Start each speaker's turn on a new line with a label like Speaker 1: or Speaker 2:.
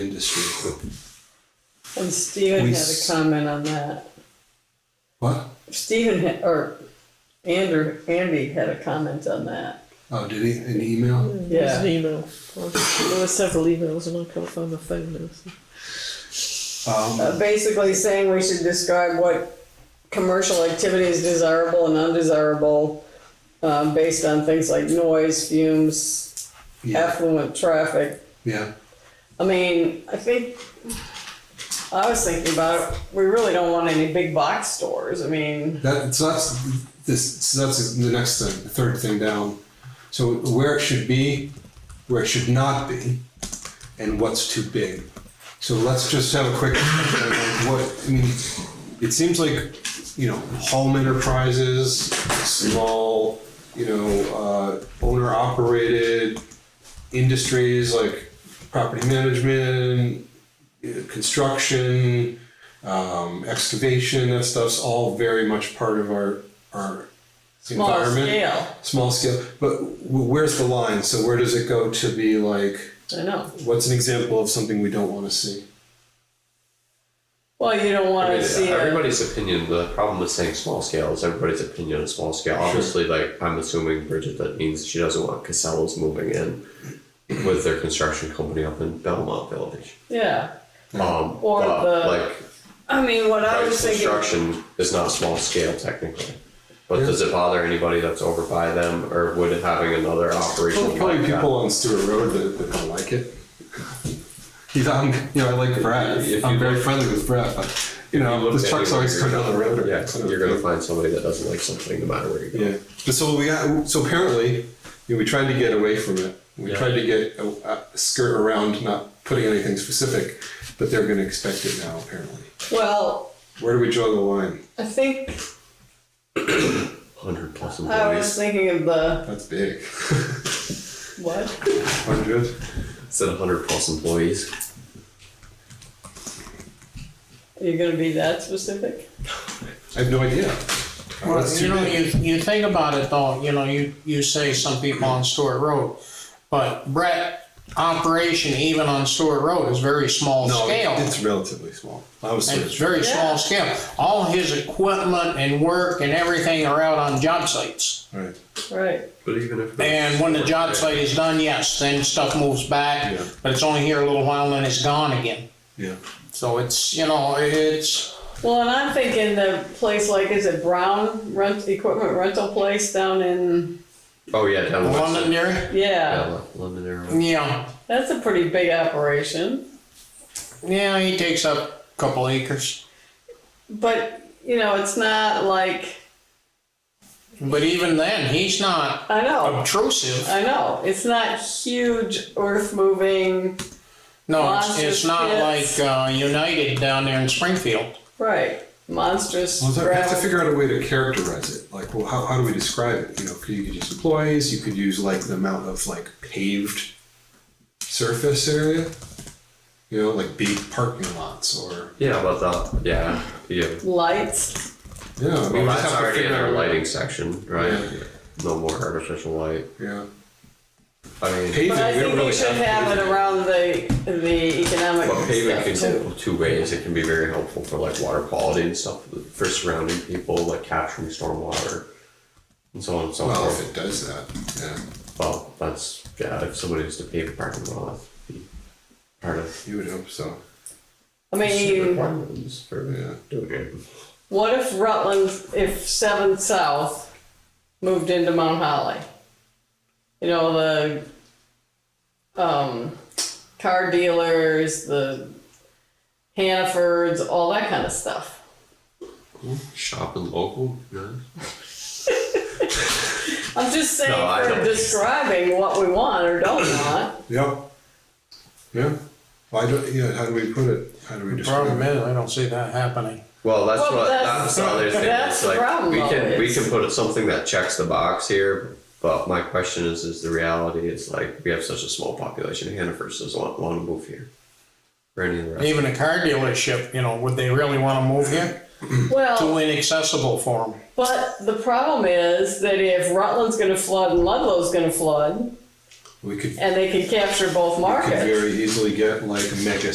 Speaker 1: industry.
Speaker 2: And Stephen
Speaker 3: We
Speaker 2: had a
Speaker 3: s-
Speaker 2: comment on that.
Speaker 1: What?
Speaker 2: Stephen had, or Andrew, Andy had a comment on that.
Speaker 1: Oh, did he? An email?
Speaker 2: Yeah.
Speaker 4: There's an email. Well, There were several emails and I can't find my phone now. so-
Speaker 1: Um,
Speaker 2: Uh, basically saying we should describe what commercial activity is desirable and undesirable um, based on things like noise, fumes,
Speaker 1: yeah,
Speaker 2: affluent traffic,
Speaker 1: yeah,
Speaker 2: I mean, I think, I was thinking about, it, we really don't want any big box stores, I mean,
Speaker 1: that, so that's, this, so that's the next thing, the third thing down. So where it should be, where it should not be, and what's too big. So let's just have a quick, discussion on what, I mean, it seems like, you know, home enterprises, small, you know, uh, owner operated industries like property management, you know, construction, um, excavation, that stuff's all very much part of our, our
Speaker 2: small
Speaker 1: environment
Speaker 2: scale,
Speaker 1: small scale but w- where's the line so where does it go to be like
Speaker 2: I know.
Speaker 1: what's an example of something we don't want to see
Speaker 2: Well, you don't
Speaker 5: I
Speaker 2: wanna
Speaker 5: mean,
Speaker 2: see it,
Speaker 5: everybody's opinion. The problem with saying small scale is everybody's opinion of small scale. Obviously, like I'm assuming Bridget, that means she doesn't want Casellas moving in with their construction company up in Belmont Village.
Speaker 2: yeah,
Speaker 5: Um,
Speaker 2: Or
Speaker 5: but,
Speaker 2: the-
Speaker 5: like
Speaker 2: I mean, what I
Speaker 5: right,
Speaker 2: was thinking,
Speaker 5: construction is not small scale technically. But
Speaker 1: Yeah.
Speaker 5: does it bother anybody that's over by them, or would having another operation
Speaker 1: Well, probably
Speaker 5: like that-
Speaker 1: people on Stewart Road that, that don't like it you know, I'm, you know I like Brad
Speaker 5: If
Speaker 1: I'm
Speaker 5: you
Speaker 1: very
Speaker 5: look-
Speaker 1: friendly with Brad but you know
Speaker 5: look
Speaker 1: the trucks
Speaker 5: anywhere,
Speaker 1: always go down the road or
Speaker 5: Yeah, you're gonna find somebody that doesn't like something no matter where you go.
Speaker 1: yeah but so we got so apparently you know, we tried to get away from it we
Speaker 5: Yeah.
Speaker 1: tried to get a, a skirt around not putting anything specific but they're going to expect it now apparently
Speaker 2: well,
Speaker 1: where do we draw the line
Speaker 2: I think,
Speaker 5: Hundred plus
Speaker 2: I was
Speaker 5: employees.
Speaker 2: thinking of the,
Speaker 1: that's big
Speaker 2: what?
Speaker 1: 100
Speaker 5: Said hundred plus employees.
Speaker 2: Are you gonna be that specific?
Speaker 1: I have no idea.
Speaker 6: Well,
Speaker 1: That's
Speaker 6: you
Speaker 1: too
Speaker 6: know,
Speaker 1: big.
Speaker 6: you, you think about it though, you know, you, you say some people on Stewart Road, but Brett, operation even on Stewart Road is very small
Speaker 1: no,
Speaker 6: scale.
Speaker 1: it's relatively small. I was
Speaker 6: It's
Speaker 1: sort of,
Speaker 6: very
Speaker 2: Yeah.
Speaker 6: small scale. All his equipment and work and everything are out on job sites.
Speaker 1: right.
Speaker 2: Right,
Speaker 5: But even if
Speaker 6: And when the job site is done, yes, then stuff moves back,
Speaker 1: Yeah.
Speaker 6: but it's only here a little while and it's gone again.
Speaker 1: Yeah.
Speaker 6: So it's, you know, it's,
Speaker 2: well, and I'm thinking the place like, is it Brown Rent, Equipment Rental Place down in,
Speaker 5: Oh yeah, down west.
Speaker 6: London area.
Speaker 5: Yeah,
Speaker 2: yeah,
Speaker 5: Lo- London area.
Speaker 6: Yeah,
Speaker 2: that's a pretty big operation.
Speaker 6: yeah, he takes up a couple acres.
Speaker 2: But you know, it's not like
Speaker 6: But even then, he's not
Speaker 2: I know,
Speaker 6: obtrusive.
Speaker 2: I know. It's not huge earth moving,
Speaker 6: No, it's,
Speaker 2: Monster
Speaker 6: it's not
Speaker 2: pits.
Speaker 6: like uh, United down there in Springfield.
Speaker 2: right? Monstrous.
Speaker 1: Well, so we have to
Speaker 2: gravel.
Speaker 1: figure out a way to characterize it. Like, well, how, how do we describe it? You know, could you could use employees? You could use like the amount of like paved surface area. You know, like big parking lots or
Speaker 5: Yeah, but that. Yeah, yeah.
Speaker 2: lights.
Speaker 1: yeah. I mean,
Speaker 5: Well,
Speaker 1: we
Speaker 5: that's
Speaker 1: just have to
Speaker 5: already in
Speaker 1: figure
Speaker 5: our
Speaker 1: out
Speaker 5: lighting section, right?
Speaker 1: Yeah.
Speaker 5: No more artificial light.
Speaker 1: Yeah,
Speaker 5: I mean,
Speaker 1: paving.
Speaker 2: But I
Speaker 1: we
Speaker 2: think
Speaker 1: don't
Speaker 2: we
Speaker 1: really
Speaker 2: should
Speaker 1: have
Speaker 2: have it
Speaker 1: paving.
Speaker 2: around the the economic
Speaker 5: But pavement can
Speaker 2: stuff
Speaker 5: go
Speaker 2: too.
Speaker 5: two ways. It can be very helpful for like water quality and stuff for surrounding people, like capturing stormwater and so on and so
Speaker 1: Well, if
Speaker 5: forth.
Speaker 1: it does that, yeah,
Speaker 5: Well, that's yeah. If somebody was to pave a parking lot, that'd be part of
Speaker 1: you would hope so.
Speaker 2: I
Speaker 5: the
Speaker 2: mean,
Speaker 5: requirements for uh,
Speaker 1: Yeah.
Speaker 5: doing it.
Speaker 2: what if Rutland, if Seven South moved into Mount Holly? You know the um, car dealers, the Hannafords, all that kind of stuff.
Speaker 5: Shopping local, no.
Speaker 2: I'm just saying
Speaker 5: No, I
Speaker 2: for
Speaker 5: don't.
Speaker 2: describing what we want or don't want.
Speaker 1: Yep. Yeah. Why don't? Yeah. How do we put it? How do we
Speaker 6: The
Speaker 1: describe
Speaker 6: problem
Speaker 1: it?
Speaker 6: is, I don't see that happening.
Speaker 5: Well, that's
Speaker 2: Well,
Speaker 5: what
Speaker 2: that's-
Speaker 5: that's, the other thing.
Speaker 2: that's
Speaker 5: it's
Speaker 2: the
Speaker 5: like
Speaker 2: problem,
Speaker 5: we
Speaker 2: though,
Speaker 5: can we
Speaker 2: is-
Speaker 5: can put something that checks the box here, but my question is, is the reality is like we have such a small population. Hannaford doesn't want, want to move here, or any of the rest.
Speaker 6: Even a car dealership, you know, would they really want to move here? Too
Speaker 2: Well,
Speaker 6: inaccessible for them.
Speaker 2: but the problem is that if Rutland's going to flood and Ludlow's going to flood,
Speaker 1: We could
Speaker 2: and they can capture both
Speaker 1: could
Speaker 2: markets.
Speaker 1: very easily get like mega